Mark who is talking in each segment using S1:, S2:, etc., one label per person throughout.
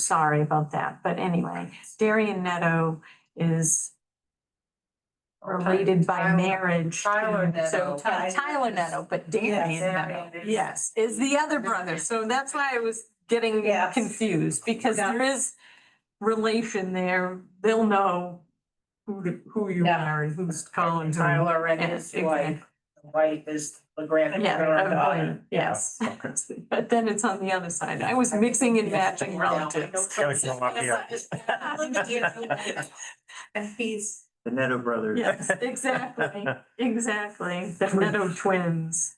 S1: Sorry about that, but anyway, Darien Neto is related by
S2: Oh, Tyler-
S1: marriage. to-
S2: Tyler Neto.
S1: So Ty- Tyler Neto, but Darien Neto,
S2: Darien is-
S1: yes, is the other brother. So that's why I was getting
S2: Yes.
S1: confused because
S2: Yeah.
S1: there is relation there. They'll know who, to- who you
S2: Yeah.
S1: are and who's Collins. and-
S2: Tyler and his
S1: Yes,
S2: wife, the wife is the grand.
S1: Yeah, oh,
S2: granddaughter.
S1: I'm- yes. But then it's on the other side. I was mixing and matching
S2: Yeah.
S1: relatives.
S3: Gotta come up here.
S2: And he's.
S3: The Neto brothers.
S1: Yes, exactly, exactly. The Meadow twins.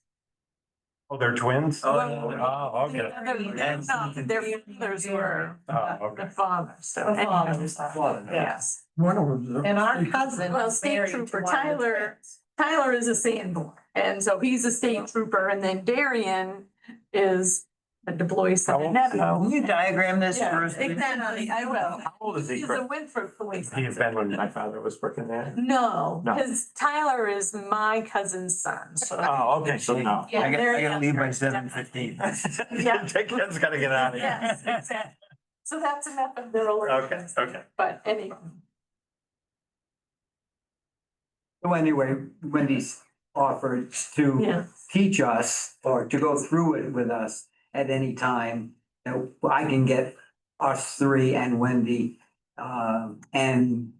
S3: Oh, they're twins?
S1: Oh,
S3: Oh, okay.
S1: The- No, their fathers were
S3: Oh,
S1: the
S3: okay.
S1: father, so.
S2: The fathers.
S1: anyhow, Yes.
S4: One of them's a-
S2: And our cousin.
S1: Well,
S2: was
S1: state
S2: married to
S1: trooper
S2: one of the
S1: Tyler-
S2: twins.
S1: Tyler is a Sanborn, and so he's a state trooper, and then Darian is a DeBois
S3: How
S1: of
S3: old
S1: Neto.
S4: you diagram this
S1: Yeah,
S4: for us? please?
S1: Exactly, I will.
S3: How old is he?
S1: He's a Winthrop police.
S3: He's
S1: officer.
S3: been when my father was working there.
S1: No,
S3: No.
S1: because Tyler is my cousin's son, so.
S3: Oh, okay, so no.
S1: Yeah,
S4: I gotta,
S1: there
S4: I
S1: you
S4: gotta
S1: go.
S4: leave by seven fifteen.
S1: Yeah.
S3: That kid's gotta get out of
S1: Yes,
S3: here.
S1: exactly. So that's enough of the.
S3: Okay, okay.
S1: But anyway,
S5: So anyway, Wendy's offered to
S1: yeah,
S5: teach us or to go through it with us at any time. That I can get us three and Wendy, um, and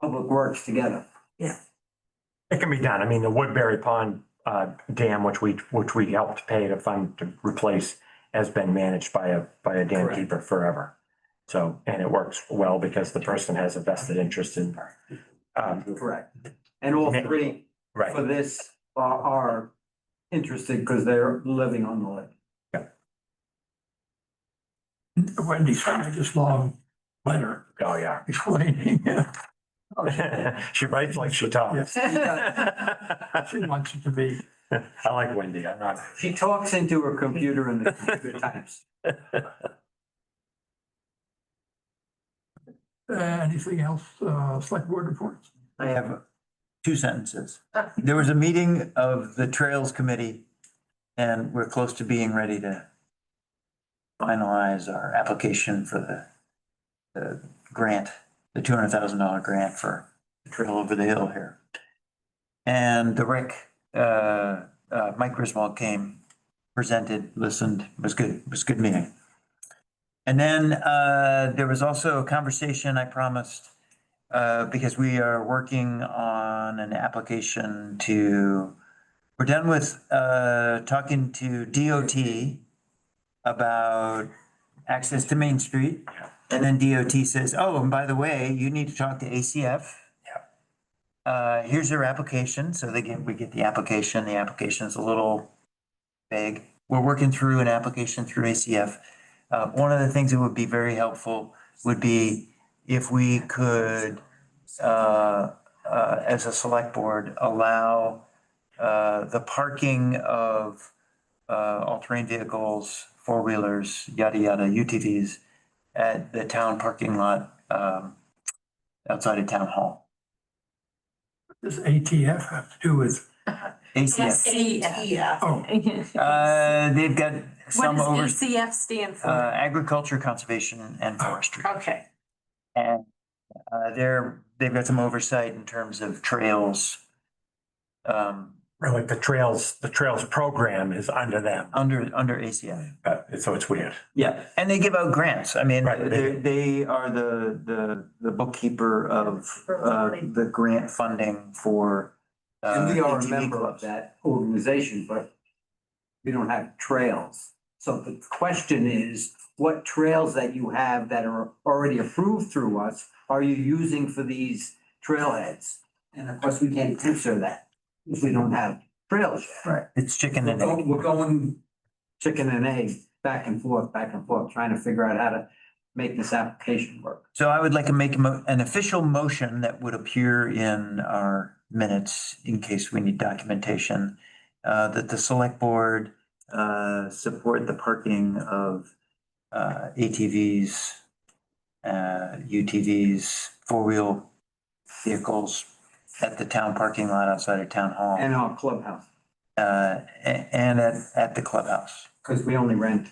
S5: Public Works together.
S3: It can be done. I mean, the Woodbury Pond uh, dam, which we, which we helped pay to fund to replace, has been managed by a, by a dam
S5: Correct.
S3: keeper forever. So, and it works well because the person has a vested interest in, um,
S5: Correct. And all three for
S3: right,
S5: this are, are interested because they're living on the lake.
S4: Wendy sent me this long letter
S3: oh, yeah.
S4: explaining, uh,
S3: She writes like she talks.
S4: she
S3: I
S4: wants it to be.
S3: like Wendy, I'm not.
S5: She talks into her computer in the computer times.
S4: Uh, anything else, uh, select board reports?
S6: I have two sentences. There was a meeting of the Trails Committee and we're close to being ready to finalize our application for the, the grant, the two hundred thousand dollar grant for the trail over the hill here. And the rec, uh, uh, Mike Griswold came, presented, listened, was good, was a good meeting. And then, uh, there was also a conversation I promised uh, because we are working on an application to, we're done with, uh, talking to DOT about access to Main Street. And then DOT says, oh, and by the way, you need to talk to ACF. Uh, here's your application. So they get, we get the application. The application's a little vague. We're working through an application through ACF. Uh, one of the things that would be very helpful would be if we could, uh, uh, as a select board, allow uh, the parking of uh, all-terrain vehicles, four-wheelers, yada, yada, UTVs at the town parking lot um, outside of town hall.
S4: Does ATF have to do with,
S6: ACF,
S1: E
S2: Yeah.
S4: oh,
S6: uh, they've got
S1: What
S6: some over,
S1: does ECF stand
S6: uh,
S1: for?
S6: agriculture, conservation, and forestry.
S1: Okay,
S6: And uh, they're, they've got some oversight in terms of trails um,
S3: Like the trails, the trails program is under them,
S6: under, under ACF.
S3: uh, so it's weird.
S6: Yeah, and they give out grants. I mean,
S3: Right, they
S6: they,
S3: do.
S6: they are the, the, the bookkeeper of uh, the grant funding for. uh,
S5: And we are a
S6: ATV
S5: member of
S6: clubs.
S5: that organization, but we don't have trails. So the question is, what trails that you have that are already approved through us are you using for these trailheads? And of course, we can't answer that if we don't have trails.
S6: Right, it's chicken
S5: We're
S6: and egg.
S5: go- we're going chicken and egg, back and forth, back and forth, trying to figure out how to make this application work.
S6: So I would like to make a mo- an official motion that would appear in our minutes in case we need documentation. Uh, that the select board, uh, support the parking of, uh, ATVs, uh, UTVs, four-wheel vehicles at the town parking lot outside of town hall.
S5: And our clubhouse,
S6: Uh, a- and at, at the clubhouse.
S5: because we only rent.